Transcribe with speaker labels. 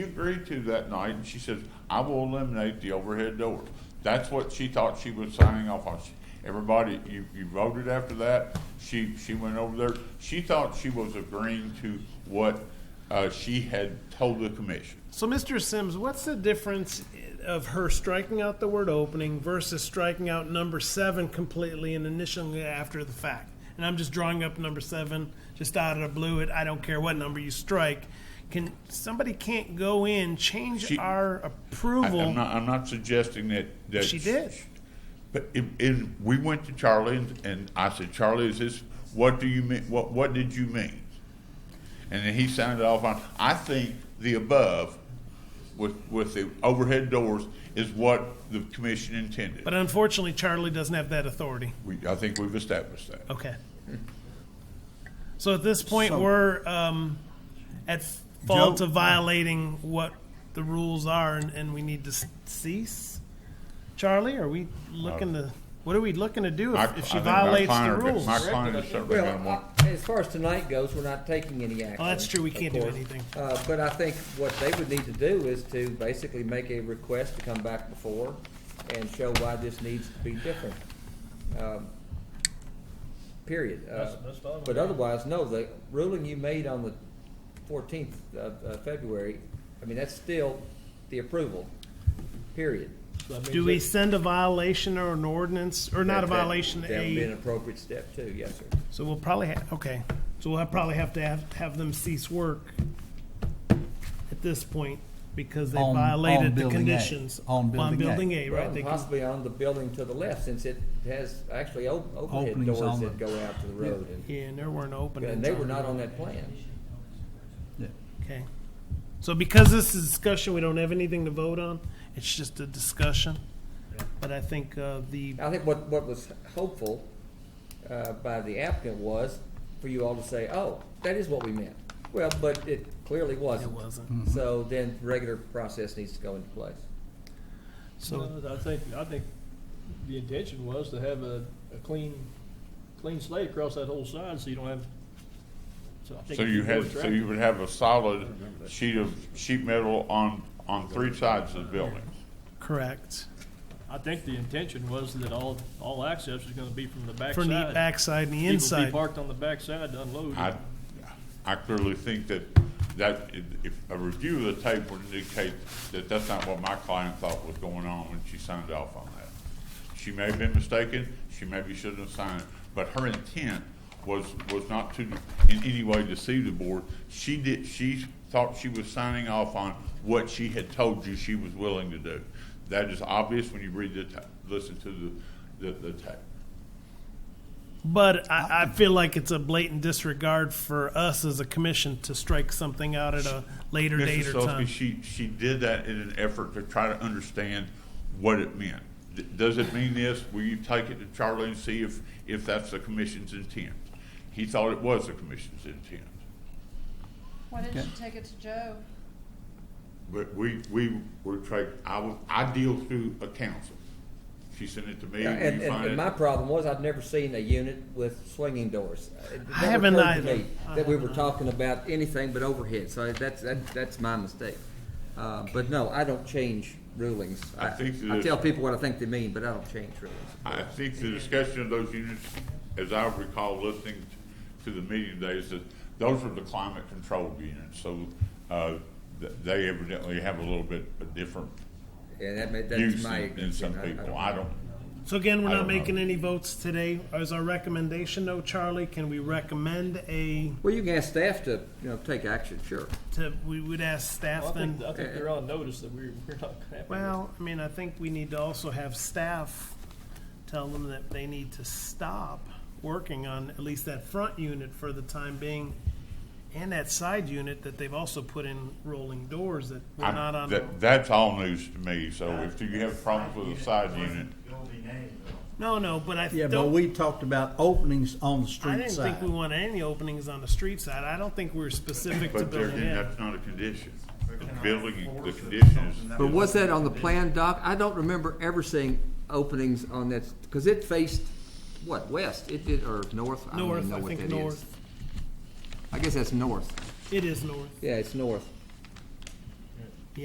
Speaker 1: she agreed to that night, and she says, I will eliminate the overhead door. That's what she thought she was signing off on. She- Everybody, you, you voted after that, she, she went over there, she thought she was agreeing to what, uh, she had told the commission.
Speaker 2: So, Mr. Sims, what's the difference of her striking out the word opening versus striking out number seven completely and initialing it after the fact? And I'm just drawing up number seven, just out of the blue. It I don't care what number you strike. Can somebody can't go in change
Speaker 1: She-
Speaker 2: our
Speaker 1: I-
Speaker 2: approval?
Speaker 1: I'm not, I'm not suggesting that, that.
Speaker 2: She did.
Speaker 1: But it, it, we went to Charlie and, and I said, Charlie, is this, what do you mean, what, what did you mean? And then he signed it off on, I think the above with, with the overhead doors is what the commission intended.
Speaker 2: But unfortunately, Charlie doesn't have that authority.
Speaker 1: We, I think we've established that.
Speaker 2: Okay. So at this point,
Speaker 3: So-
Speaker 2: we're um, at fault
Speaker 3: Joe-
Speaker 2: of violating what the rules are, and, and we need to s- cease. Charlie, are we looking to? What are we looking to do
Speaker 1: My-
Speaker 2: if, if she
Speaker 1: I think my
Speaker 2: violates the
Speaker 1: client-
Speaker 2: rules?
Speaker 1: My client is certainly
Speaker 3: Well,
Speaker 1: gonna want,
Speaker 3: I- as far as tonight goes, we're not taking any action.
Speaker 2: Well, that's true. We
Speaker 3: of
Speaker 2: can't do
Speaker 3: course.
Speaker 2: anything.
Speaker 3: Uh, but I think what they would need to do is to basically make a request to come back before and show why this needs to be different. Um, Period. Uh, But otherwise, no, the ruling you made on the fourteenth of, uh February, I mean, that's still the approval, period.
Speaker 2: Do we send a violation or an ordinance, or not a
Speaker 3: That- that-
Speaker 2: violation?
Speaker 3: That would be an
Speaker 2: A
Speaker 3: appropriate step too, yes, sir.
Speaker 2: so we'll probably ha- okay. So we'll have, probably have to have, have them cease work at this point because they
Speaker 4: On- on
Speaker 2: violated the
Speaker 4: building A.
Speaker 2: conditions
Speaker 4: On building A.
Speaker 2: building A, right?
Speaker 3: Well,
Speaker 2: They
Speaker 3: and
Speaker 2: can-
Speaker 3: possibly on the building to the left, since it has actually o- overhead
Speaker 4: Openings
Speaker 3: doors
Speaker 4: on
Speaker 3: that
Speaker 4: the-
Speaker 3: go out to the road. and-
Speaker 2: Yeah, and there weren't open.
Speaker 3: And they were not on that plan.
Speaker 4: Yeah.
Speaker 2: Okay. So because this is discussion, we don't have anything to vote on. It's just a discussion. But I think uh, the,
Speaker 3: I think what, what was hopeful uh, by the applicant was for you all to say, oh, that is what we meant. Well, but it clearly
Speaker 2: it
Speaker 3: wasn't.
Speaker 2: wasn't.
Speaker 3: So then regular process needs to go into place.
Speaker 2: So,
Speaker 5: No, I think, I think the intention was to have a, a clean, clean slate across that whole side, so you don't have, so I think.
Speaker 1: so
Speaker 5: if
Speaker 1: you
Speaker 5: go
Speaker 1: had,
Speaker 5: with
Speaker 1: so
Speaker 5: traffic-
Speaker 1: you would have a solid sheet of sheet metal on, on three sides of the building.
Speaker 2: correct.
Speaker 5: I think the intention was that all, all access is gonna be from the backside.
Speaker 2: From the backside and the
Speaker 5: People be
Speaker 2: inside.
Speaker 5: parked on the backside to unload.
Speaker 1: I, I clearly think that, that if- if a review of the tape would indicate that that's not what my client thought was going on when she signed off on that. She may have been mistaken, she maybe shouldn't have signed it, but her intent was, was not to in any way deceive the board. She did, she thought she was signing off on what she had told you she was willing to do. That is obvious when you read the, ta- listen to the, the, the tape.
Speaker 2: But I, I feel like it's a blatant disregard for us as a commission to strike something out at a later date
Speaker 1: Mrs.
Speaker 2: or
Speaker 1: Selsby,
Speaker 2: time.
Speaker 1: she, she did that in an effort to try to understand what it meant. D- Does it mean this? Will you take it to Charlie and see if, if that's the commission's intent? He thought it was the commission's intent.
Speaker 6: Why didn't
Speaker 4: Okay.
Speaker 6: you take it to Joe?
Speaker 1: But we, we were tra I was, I deal through a council. She sent it to me,
Speaker 3: Yeah, And,
Speaker 1: you
Speaker 3: and, and
Speaker 1: find
Speaker 3: my
Speaker 1: it.
Speaker 3: problem was I'd never seen a unit with swinging doors. It never
Speaker 2: haven't
Speaker 3: occurred to
Speaker 2: either.
Speaker 3: me
Speaker 2: I
Speaker 3: That we
Speaker 2: haven't
Speaker 3: were talking about anything but overhead, so that's, that, that's my mistake. Uh, but no, I don't change rulings.
Speaker 1: I think that
Speaker 3: I
Speaker 1: it's-
Speaker 3: tell people what I think they mean, but I don't change rulings.
Speaker 1: I think the discussion of those units, as I recall listening to the meeting today, is that those are the climate controlled units. So, uh, th- they evidently have a little bit of different
Speaker 3: And that may, that's
Speaker 1: use
Speaker 3: my.
Speaker 1: in, in some people. I don't,
Speaker 2: So again, we're
Speaker 1: I
Speaker 2: not
Speaker 1: don't know.
Speaker 2: making any votes today. Is our recommendation, though, Charlie? Can we recommend a,
Speaker 3: Well, you can ask staff to, you know, take action, sure.
Speaker 2: to, we would ask
Speaker 5: Well, I
Speaker 2: staff then?
Speaker 5: think, I think they're on notice that we're, we're not happy.
Speaker 2: Well, I mean, I think we need to also have staff tell them that they need to stop working on at least that front unit for the time being and that side unit that they've also put in rolling doors that were not
Speaker 1: I,
Speaker 2: on.
Speaker 1: that, that's all news to me, so if you have problems with a side unit,
Speaker 2: No, no, but I
Speaker 4: Yeah, but
Speaker 2: don't,
Speaker 4: we talked about openings on the
Speaker 2: I
Speaker 4: street
Speaker 2: didn't
Speaker 4: side.
Speaker 2: think we wanted any openings on the street side. I don't think we're specific to
Speaker 1: but there,
Speaker 2: building in.
Speaker 1: that's not a condition. The building, the condition is.
Speaker 3: But was that on the plan doc? I don't remember ever seeing openings on that, because it faced, what, west? It did, or north? I don't even
Speaker 2: North,
Speaker 3: know
Speaker 2: I
Speaker 3: what
Speaker 2: think
Speaker 3: that is.
Speaker 2: north.
Speaker 3: I guess that's north.
Speaker 2: It is north.
Speaker 3: Yeah, it's north.